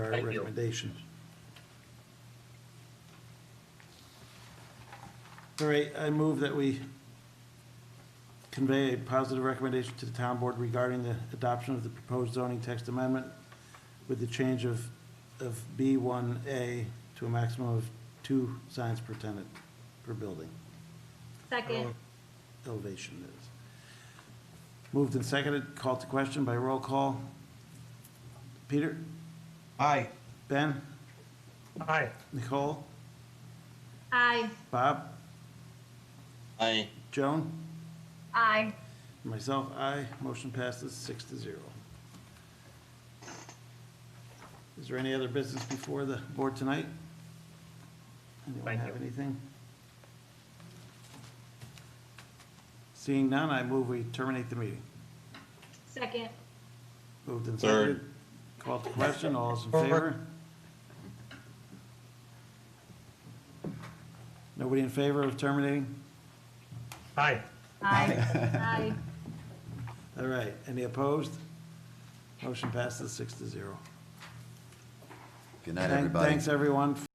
our Thank you. recommendations. All right, I move that we convey a positive recommendation to the town board regarding the adoption of the proposed zoning text amendment with the change of, of B one A to a maximum of two signs per tenant per building Second, elevation is. Moved and seconded, called to question by roll call. Peter? Aye. Ben? Aye. Nicole? aye. Bob? Aye. Joan? Aye. Myself, aye. Motion passes six to zero. Is there any other business before the board tonight? Anyone Thank have you. anything? Seeing none, I move we terminate the meeting. Second, Moved and Third. seconded. Called to question, all is in favor? Nobody in favor of terminating? Aye. aye. Aye. All right, any opposed? Motion passes six to zero. Good night, Thank- everybody. Thanks, everyone.